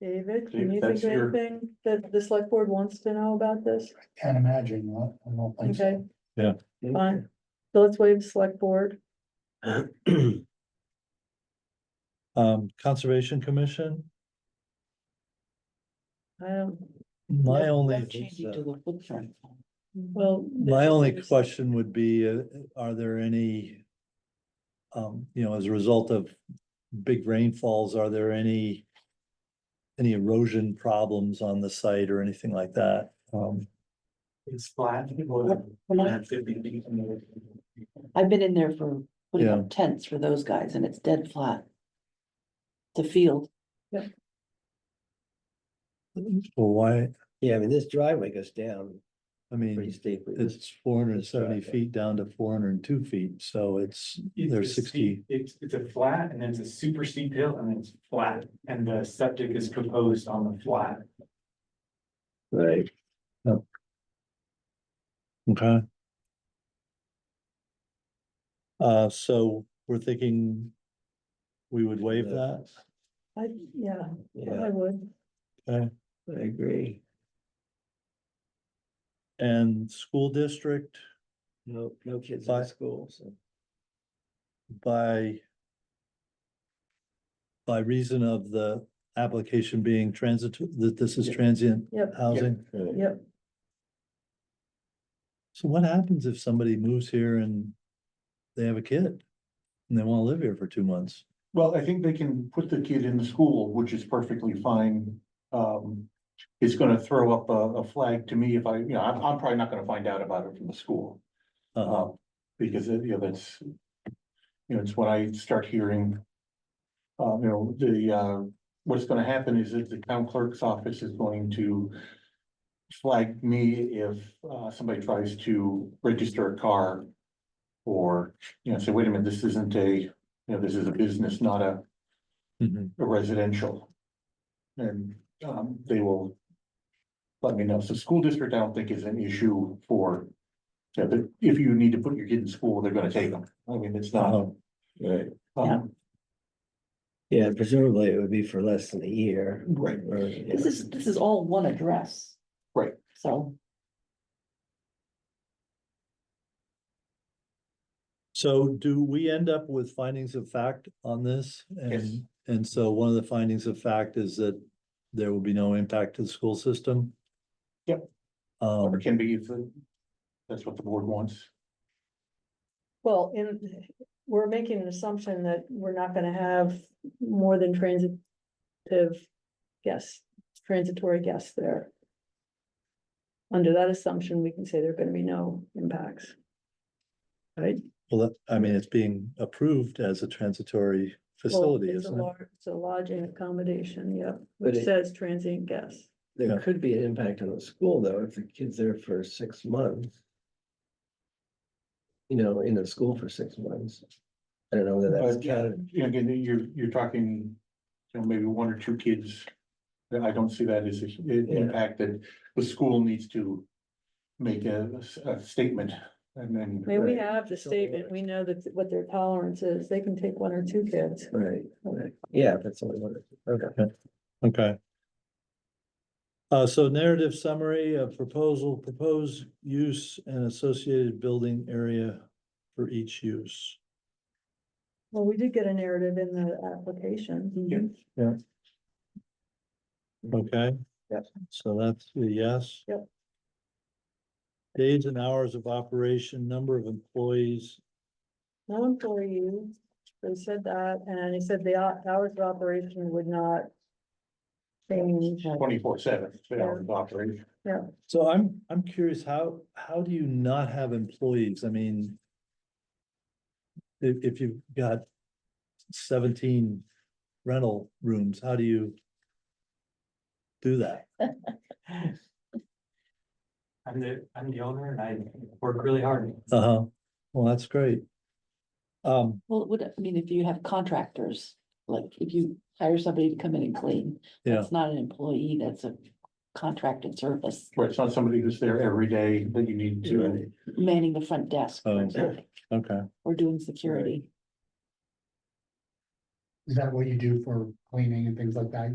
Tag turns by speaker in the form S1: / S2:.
S1: David,
S2: Chief,
S1: can you think
S2: that's
S1: of
S2: your-
S1: anything that the select board wants to know about this?
S3: Can't imagine, I don't- I don't think
S1: Okay.
S3: so.
S2: Yeah.
S1: Fine, so let's waive select board,
S2: Um, Conservation Commission,
S1: I don't,
S2: my only.
S1: well.
S2: My only question would be, uh, are there any? Um, you know, as a result of big rainfalls, are there any? Any erosion problems on the site or anything like that? Um,
S4: It's flat.
S5: When I- I've been in there for putting
S2: Yeah.
S5: up tents for those guys and it's dead flat. The field,
S2: well, why,
S4: Yeah, I mean, this driveway goes down
S2: I
S4: pretty
S2: mean,
S4: steeply. This-
S2: it's four hundred and seventy
S4: Exactly.
S2: feet down to four hundred and two feet, so it's,
S6: It's a
S2: there's sixty.
S6: steep- It's, it's a flat and then it's a super steep hill and then it's flat and the septic is proposed on the flat.
S4: Right.
S2: Okay. Uh, so we're thinking. We would waive that?
S1: I, yeah,
S4: uh, Yeah,
S1: I would,
S4: I agree.
S2: And school district
S4: No, no kids
S2: But-
S4: in school, so.
S2: by. By reason of the application being transit, that this is
S4: Yeah.
S2: transient
S1: Yep.
S2: housing.
S1: yep,
S2: So what happens if somebody moves here and they have a kid? And they wanna live here for two months?
S7: Well, I think they can put the kid in the school, which is perfectly fine. Um, it's gonna throw up a, a flag to me if I, you know, I'm, I'm probably not gonna find out about it from the school.
S2: Uh,
S7: uh, because, it- you know, that's, you know, it's when I start hearing, uh, you know, the, uh, what's gonna happen is that the town clerk's office is going to flag me if, uh, somebody tries to register a car or, you know, say, wait a minute, this isn't a, you know, this is a business, not a
S2: mhm.
S7: a residential. And um they will. Let me know, so school district, I don't think is an issue for. Yeah, but if you need to put your kid in school, they're gonna take them, I mean, it's not.
S2: Oh,
S4: Right.
S7: um,
S4: Yeah, presumably it would be for less than a year.
S7: Right,
S4: or-
S5: this is, this is all one address.
S7: Right.
S5: So,
S2: So do we end up with findings of fact on this?
S7: Yes.
S2: And, and so one of the findings of fact is that there will be no impact to the school system?
S7: Yep.
S2: Um,
S7: or can be if the- that's what the board wants.
S1: well, in, we're making an assumption that we're not gonna have more than transitive guests, transitory guests there. Under that assumption, we can say there are gonna be no impacts.
S2: Well, that- I mean, it's being approved as a transitory
S1: Well,
S2: facility,
S1: it's a
S2: isn't it?
S1: lar- It's a lodging accommodation, yep,
S4: But
S1: which
S4: it-
S1: says transient guest.
S4: There
S2: Yeah.
S4: could be an impact on the school, though, if the kid's there for six months. You know, in the school for six months. I don't know whether that's
S7: But yeah,
S4: counted.
S7: you know, again, you're you're talking, you know, maybe one or two kids. that I don't see that as a- an
S4: Yeah.
S7: impact that the school needs to make a a statement and then.
S1: I mean, we
S4: Right.
S1: have the
S4: So-
S1: statement, we know that what their tolerance is, they can take one or two kids.
S4: Right, right. Yeah, that's only one. Okay.
S2: Okay. Uh, so narrative summary of proposal, proposed use and associated building area for each use.
S1: Well, we did get a narrative in the application.
S2: Okay?
S4: Yep.
S2: So that's a yes.
S1: Yep.
S2: Days and hours of operation, number of employees,
S1: No employee, they said that, and he said the hou- hours of operation would not change.
S7: Twenty-four seven, it's been on operation.
S2: So I'm, I'm curious, how, how do you not have employees? I mean. If, if you've got seventeen rental rooms, how do you? Do that?
S6: I'm the, I'm the owner and I work really hard.
S2: Uh-huh, well, that's great. Um,
S5: well, it would, I mean, if you have contractors, like if you hire somebody to come in and clean.
S2: Yeah.
S5: That's not an employee, that's a contracted service,
S7: Right, it's not somebody who's there every day that you need to,
S5: manning the front desk, for
S2: Oh.
S5: example,
S2: okay,
S5: or doing security.
S3: Is that what you do for cleaning and things like that?